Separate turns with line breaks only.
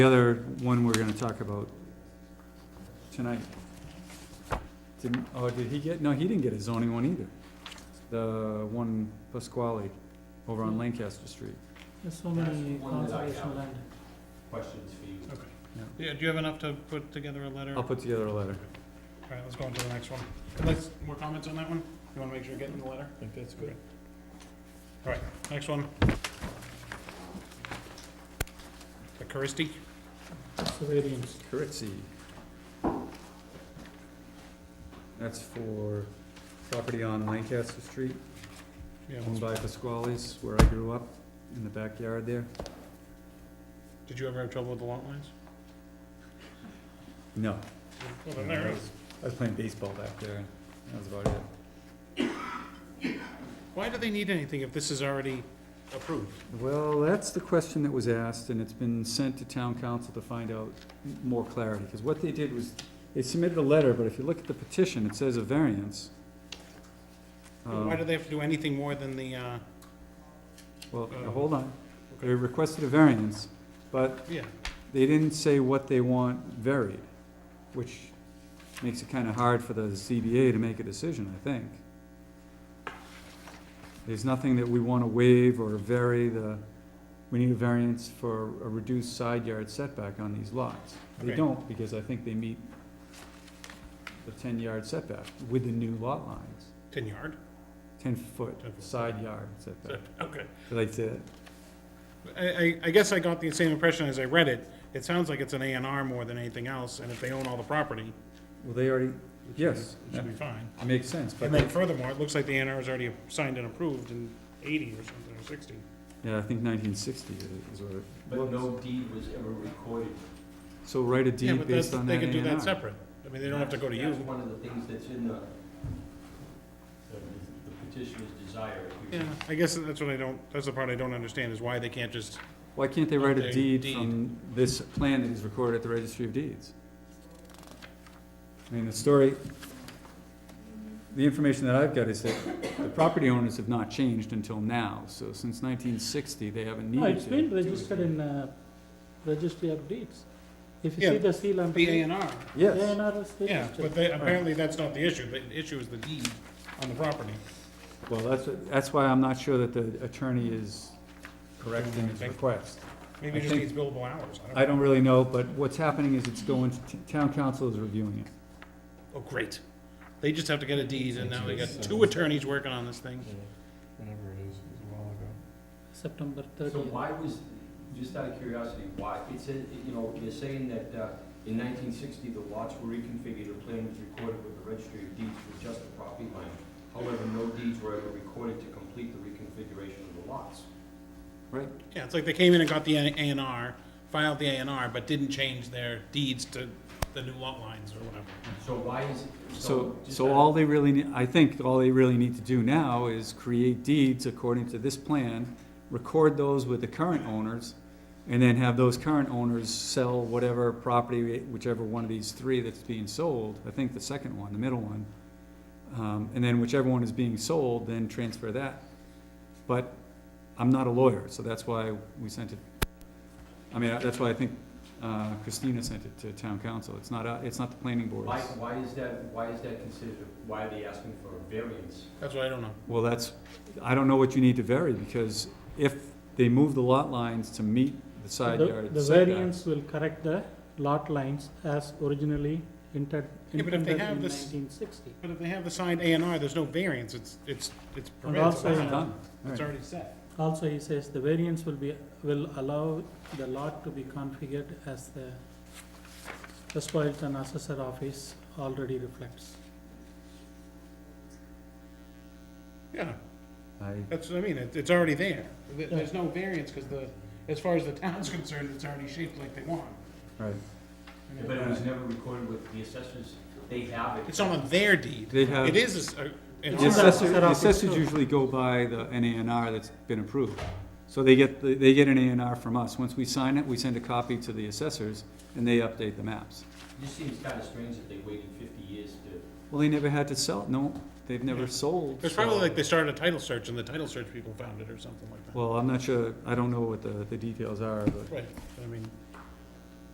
The other one we're gonna talk about tonight. Didn't, oh, did he get, no, he didn't get a zoning one either. The one Pasquale over on Lancaster Street.
There's so
That's
many
one that I
conservation
have.
land.
questions for you.
Yeah, do you have enough to put together a letter?
I'll put together a letter.
All right, let's go on to the next one. Let's, more comments on that one? You wanna make sure you're getting the letter? I think that's good. All right, next one. The Karisti,
Surveyors.
Curtsey. That's for property on Lancaster Street,
yeah,
owned
let's-
by Pasquale's, where I grew up, in the backyard there.
did you ever have trouble with the lot lines?
No,
Well, then Oh, there it is.
I was playing baseball back there, and that was about it.
Why do they need anything if this is already approved?
Well, that's the question that was asked, and it's been sent to town council to find out m- more clarity, because what they did was, they submitted a letter, but if you look at the petition, it says a variance. Um,
Why do they have to do anything more than the, uh,
Well,
uh,
hold on, they
okay,
requested a variance, but
yeah,
they didn't say what they want varied, which makes it kinda hard for the ZBA to make a decision, I think. There's nothing that we wanna waive or vary the, we need a variance for a reduced side yard setback on these lots. They
Okay.
don't, because I think they meet the ten yard setback with the new lot lines,
ten yard?
ten foot
10 foot.
side yard setback.
Okay.
Did I say that?
I, I, I guess I got the same impression as I read it. It sounds like it's an A and R more than anything else, and if they own all the property,
Well, they already, yes,
it should be fine.
it makes sense, but.
And then furthermore, it looks like the A and R is already signed and approved in eighty or something, or sixty.
Yeah, I think nineteen sixty is what it
But no deed was ever recorded.
So write a
Yeah,
deed
but that's,
based on
they
that A
could do that
and R.
separate. I mean, they don't have to go to you.
That's one of the things that's in the, the the petitioner's desire. if we-
Yeah, I guess that's what I don't, that's the part I don't understand, is why they can't just,
Why can't they write a
Okay,
deed
deed.
from this plan that is recorded at the registry of deeds? I mean, the story, the information that I've got is that the property owners have not changed until now, so since nineteen sixty, they haven't
No,
needed
Oh, it's
to.
been
do it.
registered in uh, registry of deeds. If you
Yeah,
see the seal on.
the A and R.
Yes,
ANR is
Yeah, but
registered.
they, apparently that's not the issue. The issue is the deed on the property.
well, that's, what- that's why I'm not sure that the attorney is correct in his
Thank you.
request.
Maybe
I
it just
think-
needs billable hours. I don't
I don't really know, but what's happening is it's going, to t- town council is reviewing it.
Oh, great. They just have to get a deed, and now they got
uh,
two attorneys working on this thing.
Whenever it is, it was a while ago.
September
So
thirtieth.
why was, just out of curiosity, why, it said, you know, you're saying that uh, in nineteen sixty, the lots were reconfigured, a plan was recorded with the registry of deeds for just the property line. However, no deeds were ever recorded to complete the reconfiguration of the lots.
Yeah, it's like they came in and got the A and R, filed the A and R, but didn't change their deeds to the new lot lines or whatever.
So why is,
So,
so. just
so
out of-
all they really, nee- I think all they really need to do now is create deeds according to this plan, record those with the current owners, and then have those current owners sell whatever property, whichever one of these three that's being sold, I think the second one, the middle one. Um, and then whichever one is being sold, then transfer that. But I'm not a lawyer, so that's why we sent it, I mean, that's why I think uh, Christina sent it to town council. It's not, a- it's not the planning board.
Why, why is that, why is that considered, why are they asking for a variance?
That's what I don't know.
Well, that's, I don't know what you need to vary, because if they move the lot lines to meet the side yard
The
setback.
variance will correct the lot lines as originally entered,
Yeah, but if
intended
they
in
have this-
nineteen sixty.
But if they have the signed A and R, there's no variance, it's, it's, it's
And
permitted.
also,
Done, all
It's
right.
already set.
also he says the variance will be, will allow the lot to be configured as the Westport Assessor Office already reflects.
Yeah,
I-
that's what I mean, it, it's already there. There- There's no variance, because the, as far as the town's concerned, it's already shaped like they want.
Right,
But it was never recorded with the assessors, they have it.
It's not on their deed.
they have,
It
the
is, a- an
It's
R.
a-
assessor, the assessors usually go by the N A N R that's been approved. So they get, the- they get an A and R from us. Once we sign it, we send a copy to the assessors, and they update the maps.
This seems kind of strange that they waited fifty years to,
Well, they never had to sell, it. no, they've
Yeah.
never sold.
It's probably
so-
like they started a title search, and the title search people found it or something like that.
Well, I'm not sure, I don't know what the, the details are, but
Right, I mean,